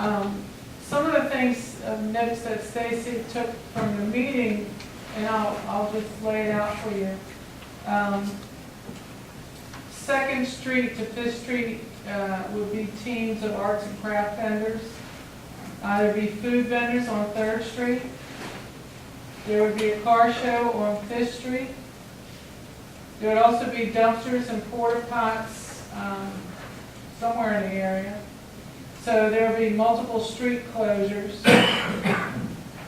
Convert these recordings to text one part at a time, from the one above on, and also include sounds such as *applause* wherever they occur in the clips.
Um, Some of the things I've noticed that Stacy took from the meeting, and I'll, I'll just lay it out for you. Um, Second Street to Fifth Street uh, would be teams of arts and craft vendors. Uh, There'd be food vendors on Third Street. There would be a car show on Fifth Street. There would also be dumpsters and porta pots um, somewhere in the area. So there'll be multiple street closures. *coughs*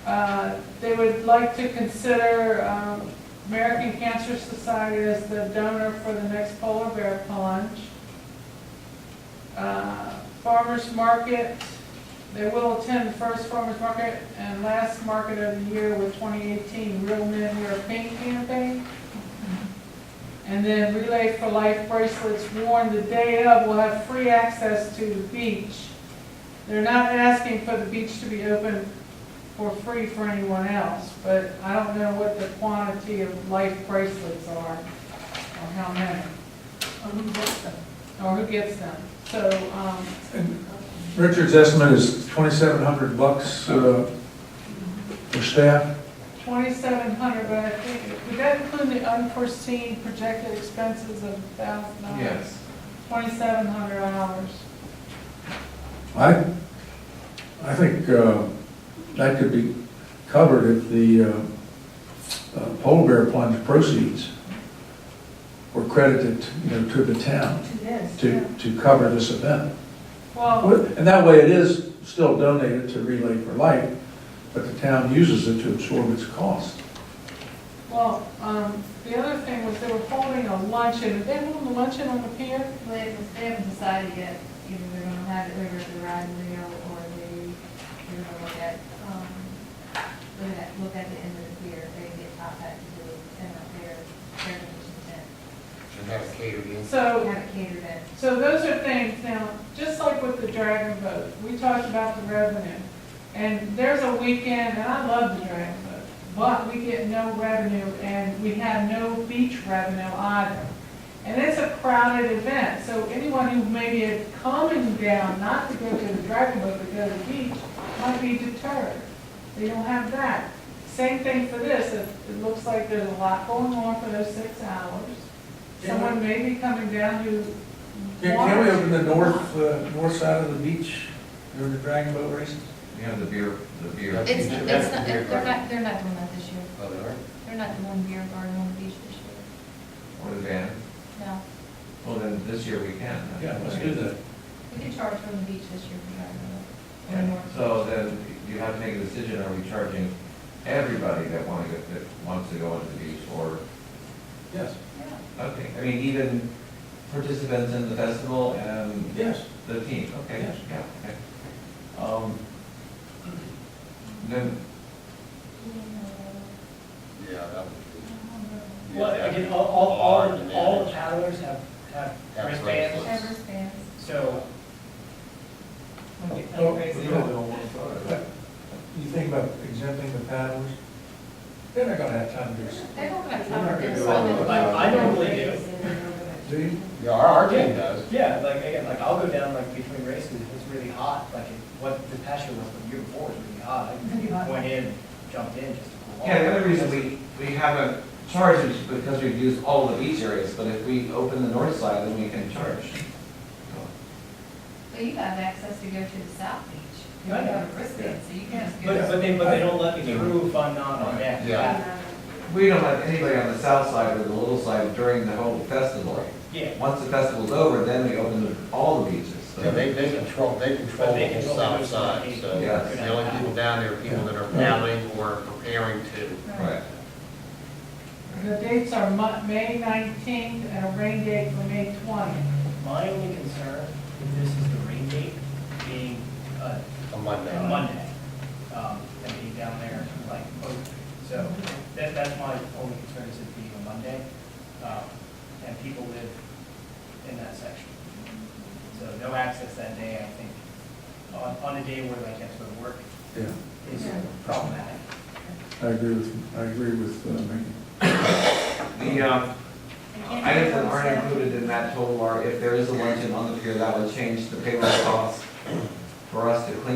Uh, They would like to consider um, American Cancer Society as the donor for the next polar bear plunge. Uh, Farmers Market, they will attend first farmers market and last market of the year with 2018 Real Men Wear Pink campaign. And then Relay for Life bracelets worn the day of will have free access to the beach. They're not asking for the beach to be open for free for anyone else, but I don't know what the quantity of life bracelets are, or how many, or who gets them. So, um, And Richard's estimate is twenty-seven hundred bucks uh, for staff. twenty-seven hundred, but I think, would that include the unforeseen projected expenses of thousand dollars? Yes. Twenty-seven hundred dollars. I, I think uh, that could be covered if the uh, uh, polar bear plunge proceeds were credited, you know, to the town to, to cover this event. Well, And that way it is still donated to Relay for Life, but the town uses it to absorb its cost. well, um, the other thing was they were holding a luncheon, did they hold a luncheon on the pier? They haven't, they haven't decided yet, either they're gonna have it over at the ride and reel, or they, they're gonna look at, um, look at, look at the end of the pier, they get top hat to do, and up there, their condition tent. And have a catering. So, Have it catered in. So those are things, now, just like with the Dragon Boat, we talked about the revenue. And there's a weekend, and I love the Dragon Boat, but we get no revenue and we have no beach revenue either. And it's a crowded event, so anyone who maybe is coming down not to go to the Dragon Boat but go to the beach might be deterred. They don't have that. Same thing for this, it, it looks like there's a lot going on for those six hours. Someone may be coming down who Can, can we open the north, uh, north side of the beach during the dragon boat races? You know, the beer, the beer. It's, the it's not, they're beer garden. not, they're not doing that this year, Oh, they are? they're not doing beer garden on the beach this year, Or the van? no. Well, then this year we can. that. We could charge from the beach this year for garden, or Yeah. more. So then you have to make a decision, are we charging everybody that want to, that wants to go onto the beach or, Yes, Yeah. okay, I mean, even participants in the festival and yes. the team, okay, Yes. yeah, okay. Um, Then, Yeah, that would be. Well, again, all, all, all, all the paddlers have, have Have wristbands, bracelets. Ever stands. so. Oh, You think about exempting the paddlers? They're not gonna have time to do this. They're not gonna We're not cover gonna this. do all of that. I- I normally do. Do you? Yeah, our, our team does. Yeah, like, again, like, I'll go down like between races, if it's really hot, like, it- what the past year was, the year before was really hot, Really hot. I went in, jumped in just to cool off. yeah, the other reason we, we haven't charged is because we've used all the beach areas, but if we open the north side, then we can charge. But you have access to go to the South Beach. You I know. have a wristband, so you can just But, go. but they, but they don't let me through if I'm not on that Yeah. Uh, path. We don't have anybody on the south side or the little side during the whole festival. Yeah, Once the festival's over, then we open the- all the beaches. so- Yeah, they, they control, they control But they the whole control south those side, people. so Yeah. the only people down there are people that are paddling or preparing to. Right. The dates are Mo- May 19th and a rain date for May 20th. my only concern with this is the rain date being, uh, On Monday. on Monday, um, and being down there like, oh, so that, that's my only concern is it being a Monday. um, And people live in that section. So no access that day, I think, on, on a day where like that's where work Yeah, is problematic. I agree with, I agree with uh, Mickey. The, um, items that aren't included in that total are, if there is a luncheon on the pier, that would change the payroll cost for us to clean